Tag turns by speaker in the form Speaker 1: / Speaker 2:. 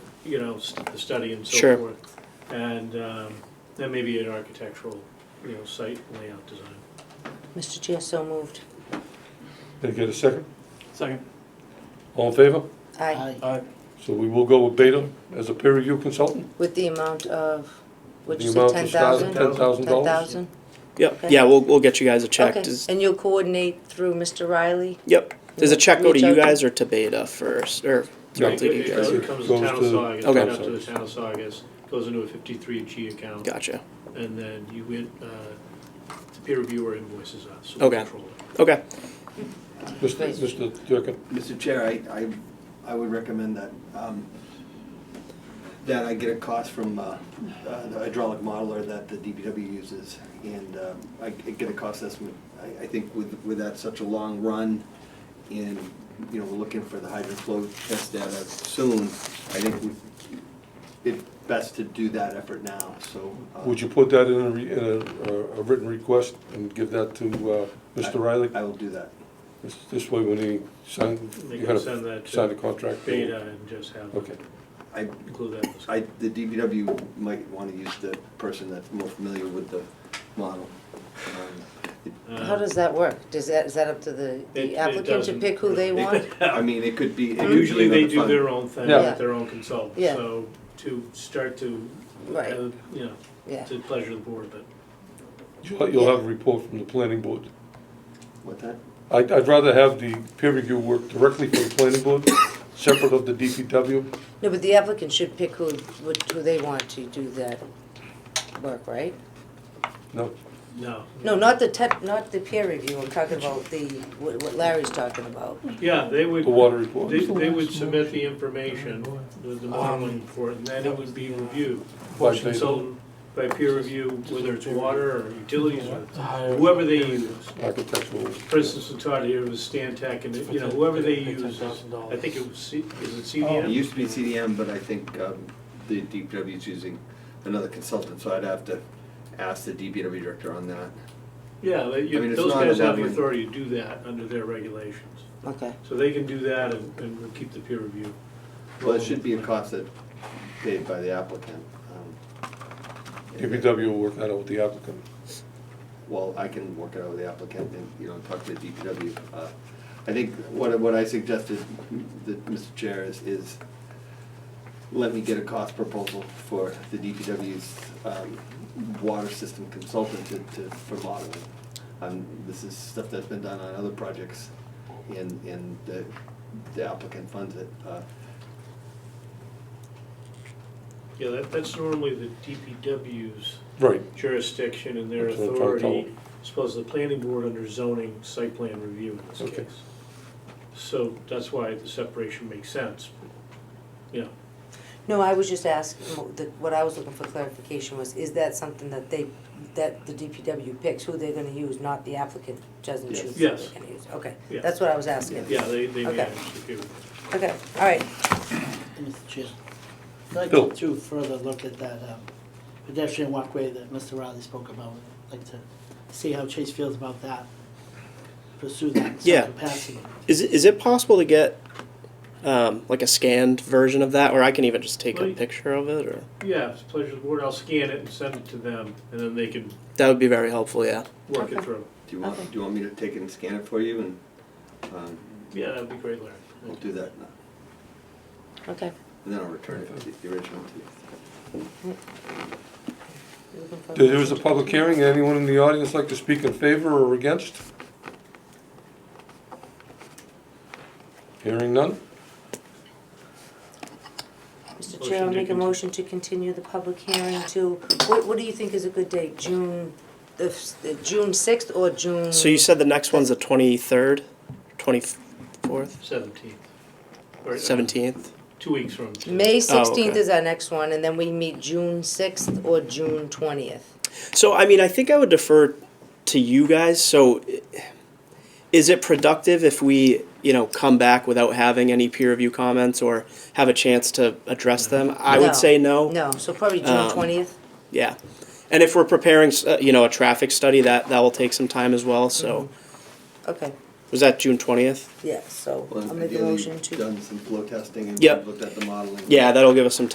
Speaker 1: you know, st- the study and so
Speaker 2: Sure.
Speaker 1: forth. And um, that may be an architectural, you know, site layout design.
Speaker 3: Mr. Chair, so moved.
Speaker 4: Can I get a second?
Speaker 5: Second.
Speaker 4: All in favor?
Speaker 3: Aye.
Speaker 5: Aye.
Speaker 4: So we will go with Beta as a peer review consultant?
Speaker 3: With the amount of, would
Speaker 4: The
Speaker 3: you say
Speaker 4: amount
Speaker 3: ten
Speaker 4: to start
Speaker 3: thousand?
Speaker 4: at $10,000?
Speaker 2: Yep,
Speaker 3: Okay.
Speaker 2: yeah, we'll, we'll get you guys a check.
Speaker 3: Okay,
Speaker 2: Does-
Speaker 3: and you'll coordinate through Mr. Riley?
Speaker 2: Yep, does a check go to
Speaker 3: Reach
Speaker 2: you
Speaker 3: out to-
Speaker 2: guys or to Beta first, or directly to
Speaker 1: It
Speaker 2: you
Speaker 1: goes-
Speaker 2: guys?
Speaker 1: It comes to
Speaker 4: Goes
Speaker 1: town of
Speaker 4: to-
Speaker 1: Saugus,
Speaker 2: Okay.
Speaker 1: right up to the town of Saugus, goes into a fifty-three G account.
Speaker 2: Gotcha,
Speaker 1: And then you went, uh, the peer reviewer invoices us, so we
Speaker 2: Okay.
Speaker 1: control it.
Speaker 2: okay,
Speaker 4: Mr.
Speaker 3: Please.
Speaker 4: Mr. Durkin?
Speaker 6: Mr. Chair, I, I, I would recommend that, um, that I get a cost from, uh, uh, the hydraulic modeler that the DPW uses, and, um, I I get a cost estimate. I, I think with, with that such a long run, and, you know, we're looking for the hydrant flow test data soon, I think we- it's best to do that effort now, so. uh,
Speaker 4: Would you put that in a, re- in a, uh, a written request and give that to, uh, Mr. Riley?
Speaker 6: I will do that.
Speaker 4: This- This way, when he sign,
Speaker 1: They
Speaker 4: you
Speaker 1: can
Speaker 4: gotta
Speaker 1: send that
Speaker 4: sign the
Speaker 1: to
Speaker 4: contract.
Speaker 1: Beta and just have,
Speaker 4: Okay.
Speaker 6: I,
Speaker 1: include that in the.
Speaker 6: I, the DPW might want to use the person that's more familiar with the model. Um,
Speaker 1: Uh,
Speaker 3: How does that work? Does that, is that up to the
Speaker 1: it-
Speaker 3: the
Speaker 1: it
Speaker 3: applicant to
Speaker 1: doesn't
Speaker 3: pick who they
Speaker 1: really-
Speaker 3: want?
Speaker 6: I mean, it could be. it could be
Speaker 1: Usually they
Speaker 6: another
Speaker 1: do
Speaker 6: fund.
Speaker 1: their own thing
Speaker 4: Yeah.
Speaker 3: Yeah.
Speaker 1: with their own consultant,
Speaker 3: Yeah.
Speaker 1: so to start to, uh,
Speaker 3: Right,
Speaker 1: you know,
Speaker 3: yeah.
Speaker 1: to pleasure the board, but
Speaker 4: You'll you'll have a report from the planning board.
Speaker 6: What that?
Speaker 4: I'd, I'd rather have the peer review work directly from the planning board, separate of the DPW.
Speaker 3: No, but the applicant should pick who, would- who they want to do that work, right?
Speaker 4: No,
Speaker 1: no.
Speaker 3: No, not the tech, not the peer review, I'm talking about the, what what Larry's talking about.
Speaker 1: Yeah, they would,
Speaker 4: the water report.
Speaker 1: they, they would submit the information, the the
Speaker 5: Um,
Speaker 1: modeling report, and then it would be reviewed.
Speaker 4: By Beta.
Speaker 1: Consultant by peer review, whether it's water or utilities or
Speaker 5: Aye.
Speaker 1: whoever they use.
Speaker 4: Architectural.
Speaker 1: For instance, we talked here with Stan Tech and, you know, whoever they
Speaker 5: Ten
Speaker 1: use,
Speaker 5: thousand dollars.
Speaker 1: I think it was, C- is it
Speaker 6: It
Speaker 1: CDM?
Speaker 6: used to be CDM, but I think um, the DPW is using another consultant, so I'd have to ask the DPW director on that.
Speaker 1: Yeah, they-
Speaker 6: I mean,
Speaker 1: you-
Speaker 6: it's
Speaker 1: those
Speaker 6: not
Speaker 1: guys
Speaker 6: a
Speaker 1: have the
Speaker 6: levy.
Speaker 1: authority to do that under their regulations.
Speaker 3: Okay,
Speaker 1: So they can do that and, and we'll keep the peer review.
Speaker 6: Well, it should be a cost that paid by the applicant. um,
Speaker 4: DPW will work that out with the applicant.
Speaker 6: Well, I can work it out with the applicant and, you know, talk to the DPW. Uh, I think what, what I suggested, mm, that Mr. Chair, is, is let me get a cost proposal for the DPW's um, water system consultant to, to, for modeling. Um, This is stuff that's been done on other projects and, and the the applicant funds it. Uh,
Speaker 1: Yeah, that, that's normally the DPW's
Speaker 4: Right.
Speaker 1: jurisdiction and their
Speaker 4: That's what I'm trying to tell
Speaker 1: authority. Suppose the planning board under zoning site plan review in this
Speaker 4: Okay.
Speaker 1: case. So that's why the separation makes sense. Yeah,
Speaker 3: no, I was just asking, the- what I was looking for clarification was, is that something that they, that the DPW picks who they're gonna use, not the applicant doesn't
Speaker 6: Yes.
Speaker 3: choose who
Speaker 1: Yes.
Speaker 3: they're gonna use? Okay,
Speaker 1: Yeah.
Speaker 3: that's what I was asking.
Speaker 1: yeah, they, they
Speaker 3: Okay.
Speaker 1: manage the peer review.
Speaker 3: Okay, all right,
Speaker 7: Mr. Chair, I'd like
Speaker 4: Bill.
Speaker 7: to do further look at that um, pedestrian walkway that Mr. Riley spoke about. I'd like to see how Chase feels about that, pursue that in
Speaker 2: Yeah.
Speaker 7: some capacity.
Speaker 2: is, it- is it possible to get, um, like a scanned version of that, or I can even just take a
Speaker 1: Well,
Speaker 2: picture of it, or?
Speaker 1: Yeah, it's a pleasure to the board. I'll scan it and send it to them and then they can
Speaker 2: That would be very helpful, yeah.
Speaker 1: work it
Speaker 3: Okay.
Speaker 1: through.
Speaker 6: Do you want, do you want me to take it and scan it for you and um,
Speaker 1: Yeah, that'd be great, Larry.
Speaker 6: we'll do that? now.
Speaker 3: okay.
Speaker 6: And then I'll return it, the- the original to you.
Speaker 3: You're looking for-
Speaker 4: There was a public hearing. Anyone in the audience like to speak in favor or against? Hearing none?
Speaker 3: Mr. Chair, I'll
Speaker 1: Motion to
Speaker 3: make a
Speaker 1: continue.
Speaker 3: motion to continue the public hearing to, what, what do you think is a good date, June, the, f- the June sixth or June?
Speaker 2: So you said the next one's the twenty-third, twenty-fourth,
Speaker 1: Seventeenth. uh,
Speaker 2: seventeenth?
Speaker 1: Two weeks from. today.
Speaker 3: May
Speaker 2: Oh,
Speaker 3: sixteenth
Speaker 2: okay.
Speaker 3: is our next one, and then we meet June sixth or June twentieth.
Speaker 2: So, I mean, I think I would defer to you guys, so i- is it productive if we, you know, come back without having any peer review comments or have a chance to address them? I
Speaker 3: No.
Speaker 2: would say no.
Speaker 3: No, so probably June
Speaker 2: Um,
Speaker 3: twentieth,
Speaker 2: Yeah, and if we're preparing, uh, you know, a traffic study, that, that will take some time as well, so,
Speaker 3: okay,
Speaker 2: was that June twentieth?
Speaker 3: yeah, so
Speaker 6: Well,
Speaker 3: I'll make a
Speaker 6: ideally,
Speaker 3: motion
Speaker 6: you've
Speaker 3: to.
Speaker 6: Done some flow testing and
Speaker 2: Yep.
Speaker 6: looked at the modeling.
Speaker 2: Yeah, that'll give us some time